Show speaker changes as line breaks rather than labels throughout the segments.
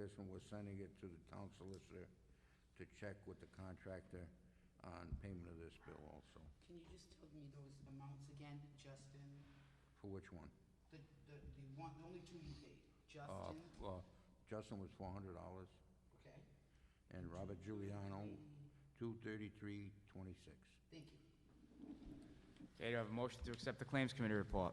person was sending it to the town solicitor to check with the contractor on payment of this bill also.
Can you just tell me those amounts again, Justin?
For which one?
The, the, the one, the only two you paid,
Uh,
Justin,
well, Justin was four hundred dollars,
okay?
and Robert Giuliano, two thirty-three twenty-six.
Thank you.
Okay, do I have a motion to accept the Claims Committee report?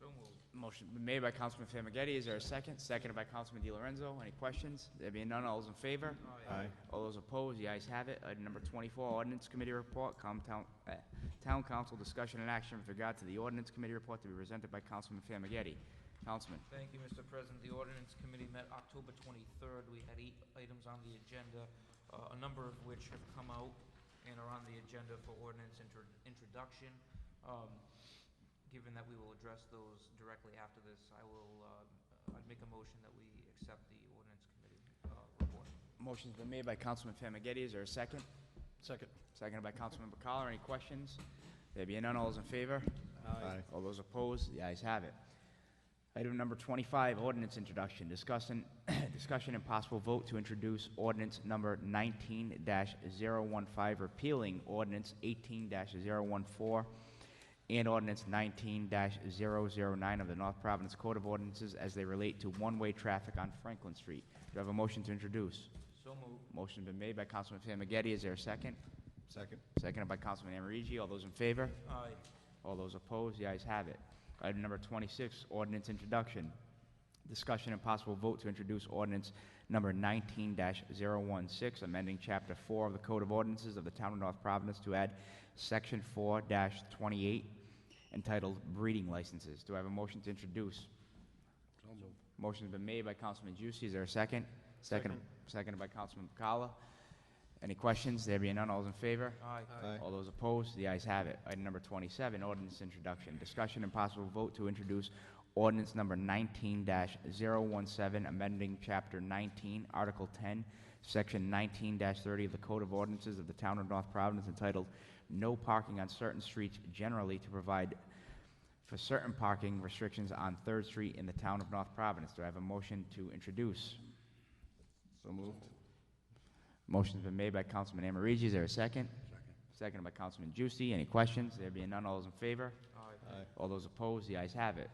So moved.
Motion made by Councilman Famagetti, is there a second? Seconded by Councilman Di Lorenzo, any questions? There being none, all those in favor?
Aye.
All those opposed, the ayes have it. Item number 24, Ordinance Committee Report, Com- Town eh, Town Council Discussion and Action with regard to the Ordinance Committee Report to be presented by Councilman Famagetti. Councilman,
Thank you, Mr. President. The ordinance committee met October 23rd. We had eight items on the agenda, uh, a number of which have come out and are on the agenda for ordinance intro- introduction. Um, Given that we will address those directly after this, I will, uh, I'd make a motion that we accept the ordinance committee uh, report.
motion's been made by Councilman Famagetti, is there a second?
Second.
Seconded by Councilman Bacala, any questions? There being none, all those in favor? Aye. All those opposed, the ayes have it. Item number 25, ordinance introduction, discussing, discussion and possible vote to introduce ordinance number 19-015, repealing ordinance 18-014 and ordinance 19-009 of the North Providence Code of Ordinances as they relate to one-way traffic on Franklin Street. Do I have a motion to introduce?
So moved.
Motion's been made by Councilman Famagetti, is there a second?
Second.
Seconded by Councilman Amorigi, all those in favor?
Aye.
All those opposed, the ayes have it. Item number 26, ordinance introduction. Discussion and possible vote to introduce ordinance number 19-016, amending Chapter 4 of the Code of Ordinances of the Town of North Providence to add Section 4-28 entitled Breeding Licenses. Do I have a motion to introduce?
So moved.
Motion's been made by Councilman Juicy, is there a second? Second. Seconded by Councilman Bacala. Any questions? There being none, all those in favor?
Aye.
Aye.
All those opposed, the ayes have it. Item number 27, ordinance introduction, discussion and possible vote to introduce ordinance number 19-017, amending Chapter 19, Article 10, Section 19-30 of the Code of Ordinances of the Town of North Providence entitled "No Parking on Certain Streets Generally" to provide for certain parking restrictions on Third Street in the Town of North Providence. Do I have a motion to introduce?
So moved.
Motion's been made by Councilman Amorigi. Is there a second?
Second.
Seconded by Councilman Juicy. Any questions? There being none, all those in favor?
Aye.
Aye.
Uh, All those opposed, the ayes have it.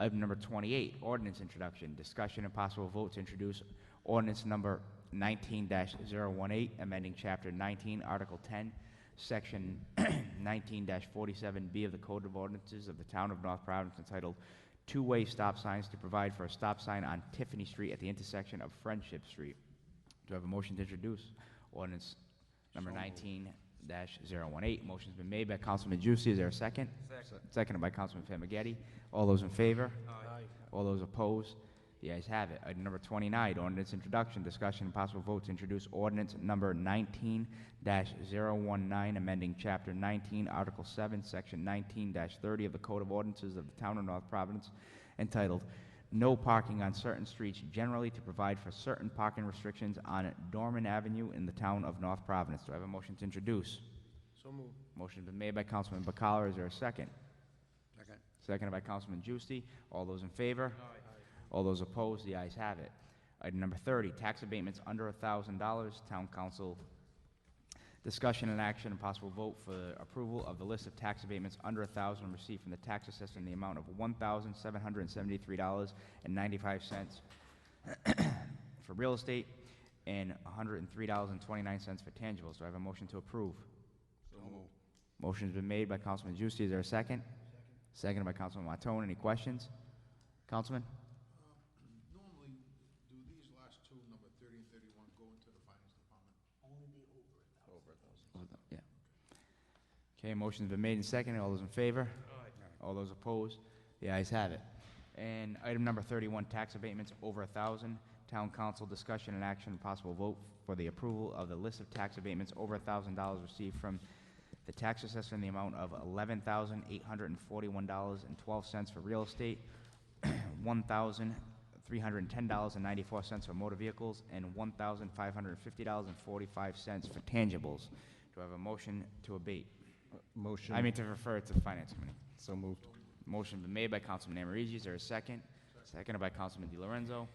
Item number 28, ordinance introduction, discussion and possible vote to introduce ordinance number 19-018, amending Chapter 19, Article 10, Section 19-47B of the Code of Ordinances of the Town of North Providence entitled Two-Way Stop Signs to Provide for a Stop Sign on Tiffany Street at the Intersection of Friendship Street. Do I have a motion to introduce ordinance number
So moved.
19-018? Motion's been made by Councilman Juicy. Is there a second?
Second.
Seconded by Councilman Famagetti. All those in favor?
Aye.
All those opposed? The ayes have it. Item number 29, ordinance introduction, discussion, and possible vote to introduce ordinance number 19-019, amending Chapter 19, Article 7, Section 19-30 of the Code of Ordinances of the Town of North Providence entitled "No Parking on Certain Streets Generally to Provide for Certain Parking Restrictions on Dorman Avenue in the Town of North Providence." Do I have a motion to introduce?
So moved.
Motion's been made by Councilman Bacala. Is there a second?
Second.
Seconded by Councilman Juicy. All those in favor?
Aye.
All those opposed, the ayes have it. Item number 30, tax abatements under $1,000, Town Council discussion and action and possible vote for approval of the list of tax abatements under 1,000 received from the tax assessor in the amount of $1,773.95 for real estate and $103.29 for tangibles. Do I have a motion to approve?
So moved.
Motion's been made by Councilman Juicy. Is there a second? Seconded by Councilman Matone. Any questions? Councilman?
Normally, do these last two, number 30 and 31, go into the finance department?
Only the over a
Over
thousand.
a thousand.
Yeah. Okay, motion's been made and seconded. All those in favor?
Aye.
All those opposed? The ayes have it. And item number 31, tax abatements over a 1,000. Town council discussion and action, possible vote for the approval of the list of tax abatements over a $1,000 received from the tax assessor in the amount of $11,841.12 for real estate, $1,310.94 for motor vehicles, and $1,550.45 for tangibles. Do I have a motion to abate?
Motion.
I mean, to refer it to the Finance Committee.
So moved.
Motion been made by Councilman Amorigi, is there a second? Seconded by Councilman Di Lorenzo.